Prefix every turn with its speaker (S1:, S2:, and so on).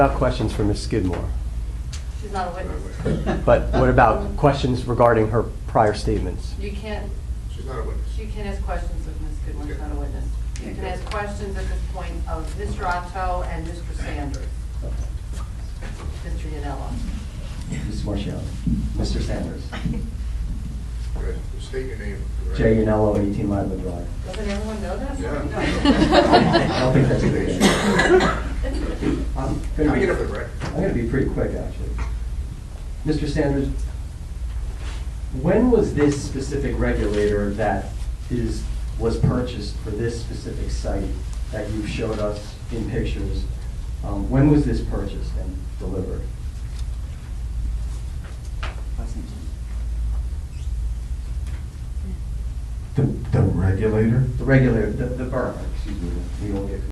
S1: About questions for Ms. Skidmore,
S2: She's not a witness.
S1: but what about questions regarding her prior statements?
S2: You can't,
S3: She's not a witness.
S2: you can't ask questions of Ms. Goodwin, she's not a witness. You can ask questions at this point of Mr. Otto and Mr. Sanders, Mr. Yanella.
S4: Mrs. Marshall. Mr. Sanders.
S3: Go ahead. State your name. for the
S4: Jerry
S3: record.
S4: Yanello, 18 Live Drive.
S2: Doesn't everyone know that?
S3: Yeah.
S4: I don't think that's a good
S2: idea.
S4: I'm
S3: Can
S4: gonna
S3: I
S4: be-
S3: get up for the record?
S4: I'm going to be pretty quick, actually. Mr. Sanders, when was this specific regulator that is, was purchased for this specific site that you showed us in pictures, um, when was this purchased and delivered?
S5: The, the regulator?
S4: The regulator, the the berm, excuse me, we all get